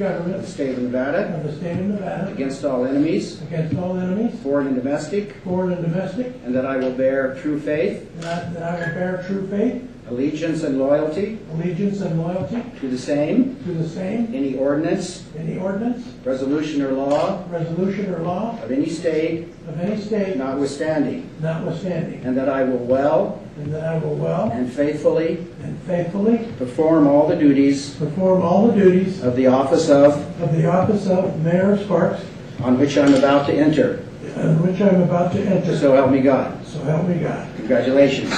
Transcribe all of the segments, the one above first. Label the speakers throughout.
Speaker 1: government
Speaker 2: of the state of Nevada
Speaker 1: of the state of Nevada
Speaker 2: against all enemies,
Speaker 1: against all enemies,
Speaker 2: foreign and domestic,
Speaker 1: foreign and domestic,
Speaker 2: and that I will bear true faith,
Speaker 1: and I- that I will bear true faith,
Speaker 2: allegiance, and loyalty
Speaker 1: allegiance, and loyalty
Speaker 2: to the same,
Speaker 1: to the same,
Speaker 2: any ordinance,
Speaker 1: any ordinance,
Speaker 2: resolution, or law
Speaker 1: resolution, or law
Speaker 2: of any state
Speaker 1: of any state
Speaker 2: notwithstanding,
Speaker 1: notwithstanding,
Speaker 2: and that I will well
Speaker 1: and that I will well
Speaker 2: and faithfully
Speaker 1: and faithfully
Speaker 2: perform all the duties
Speaker 1: perform all the duties
Speaker 2: of the office of,
Speaker 1: of the office of Mayor of Sparks,
Speaker 2: on which I'm about to enter.
Speaker 1: on which I'm about to enter,
Speaker 2: So help me God.
Speaker 1: so help me God.
Speaker 2: Congratulations.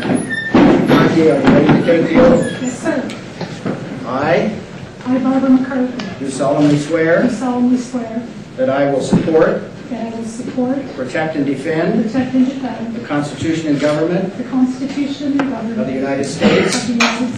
Speaker 2: Monty, are you ready to take the oath?
Speaker 3: Yes, sir.
Speaker 2: I
Speaker 3: I, Barbara McCarthy,
Speaker 2: do solemnly
Speaker 3: do
Speaker 2: swear
Speaker 3: solemnly swear
Speaker 2: that I will support,
Speaker 3: that I will support,
Speaker 2: protect, and defend
Speaker 3: protect, and defend
Speaker 2: the Constitution and government
Speaker 3: the Constitution and
Speaker 2: of the
Speaker 3: government
Speaker 2: United States
Speaker 3: of the United
Speaker 2: and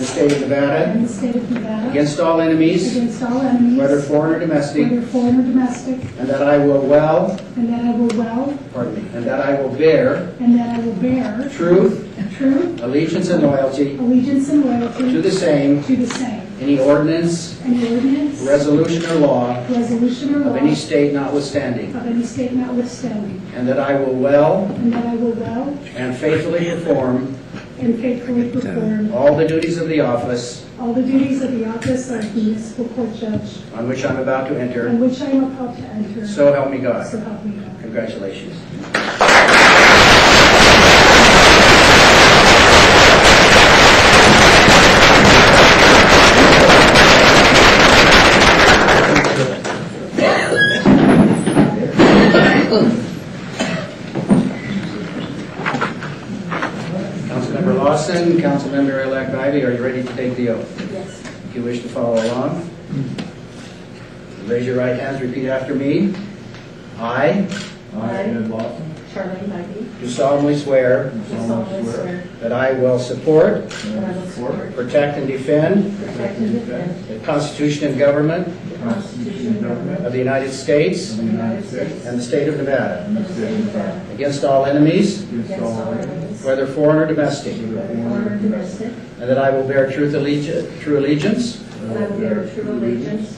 Speaker 2: the
Speaker 3: States
Speaker 2: state of Nevada
Speaker 3: and the state of Nevada
Speaker 2: against all enemies,
Speaker 3: against all enemies,
Speaker 2: whether
Speaker 3: whether
Speaker 2: foreign or domestic,
Speaker 3: foreign or domestic,
Speaker 2: and that I will well,
Speaker 3: and that I will well,
Speaker 2: pardon me, and that I will bear
Speaker 3: and that I will bear
Speaker 2: truth,
Speaker 3: true
Speaker 2: allegiance, and loyalty
Speaker 3: allegiance and
Speaker 2: to
Speaker 3: loyalty
Speaker 2: the same,
Speaker 3: to the same,
Speaker 2: any ordinance,
Speaker 3: and the ordinance,
Speaker 2: resolution, or law
Speaker 3: resolution, or law
Speaker 2: of any state notwithstanding,
Speaker 3: of any state notwithstanding,
Speaker 2: and that I will well
Speaker 3: and that I will well
Speaker 2: and faithfully perform
Speaker 3: and faithfully perform
Speaker 2: all the duties of the office
Speaker 3: All the duties of the office of municipal court judge,
Speaker 2: on which I'm about to
Speaker 3: on
Speaker 2: enter,
Speaker 3: which I am about to enter.
Speaker 2: so help me God.
Speaker 3: So help me God.
Speaker 2: Congratulations. Councilmember Lawson, Councilmember-elect Ivy, are you ready to take the oath?
Speaker 3: Yes.
Speaker 2: If you wish to follow along, raise your right hands, repeat after me. I
Speaker 4: I, Ed Lawson,
Speaker 3: Charlie Maggie,
Speaker 2: do solemnly swear
Speaker 4: do
Speaker 3: do
Speaker 4: solemnly swear
Speaker 2: that I will support,
Speaker 4: that I will support,
Speaker 2: protect, and defend
Speaker 3: protect, and defend
Speaker 2: the Constitution and government
Speaker 3: the
Speaker 4: Constitution and government
Speaker 2: of the United States
Speaker 4: of the United States
Speaker 2: and the state of Nevada
Speaker 4: and the state of Nevada,
Speaker 2: against all enemies,
Speaker 4: against all enemies,
Speaker 2: whether foreign or domestic,
Speaker 4: whether
Speaker 3: foreign
Speaker 4: foreign or domestic,
Speaker 2: and that I will bear truth allegi- true allegiance
Speaker 4: and I will bear true allegiance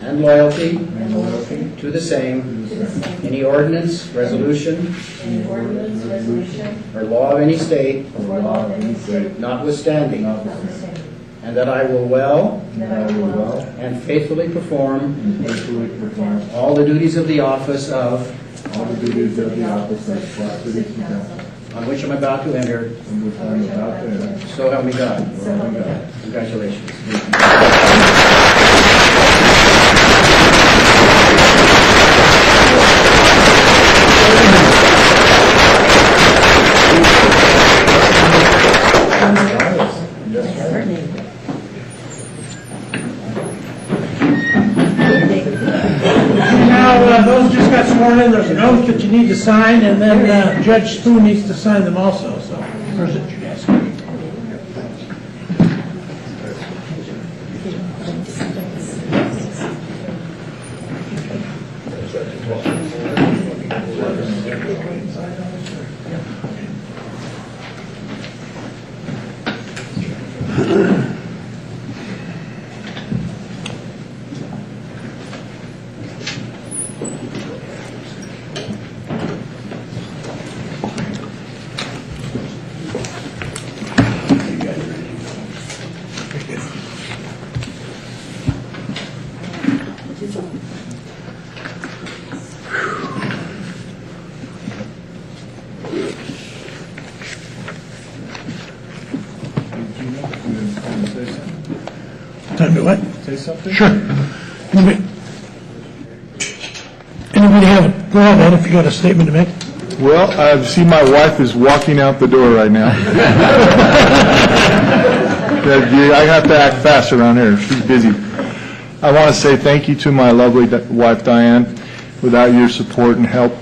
Speaker 2: and loyalty
Speaker 4: and loyalty
Speaker 2: to the same,
Speaker 4: to the same,
Speaker 2: any ordinance, resolution,
Speaker 4: and ordinance, resolution,
Speaker 2: or law of any state
Speaker 4: or law of any state,
Speaker 2: notwithstanding,
Speaker 4: notwithstanding,
Speaker 2: and that I will well
Speaker 4: and that I will well
Speaker 2: and faithfully perform
Speaker 4: and faithfully perform
Speaker 2: all the duties of the office of,
Speaker 4: all the duties of the office of Scott City Council,
Speaker 2: on which I'm about to enter,
Speaker 4: in which I am about to enter,
Speaker 2: so help me God.
Speaker 4: so help me God.
Speaker 2: Congratulations.
Speaker 1: Now, uh, those just got sworn in, there's an oath that you need to sign, and then uh, Judge Spoon needs to sign them also, so where's it, your desk?
Speaker 5: Time to what?
Speaker 4: Say something?
Speaker 5: Sure. Anybody anybody have a go ahead, Ed, if you got a statement to make?
Speaker 6: Well, I see my wife is walking out the door right now. Yeah, you- I have to act fast around here, she's busy. I want to say thank you to my lovely di- wife Diane. Without your support and help,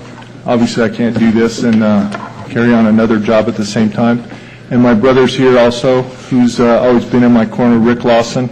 Speaker 6: obviously I can't do this and uh, carry on another job at the same time. and my brother's here also, who's uh, always been in my corner, Rick Lawson.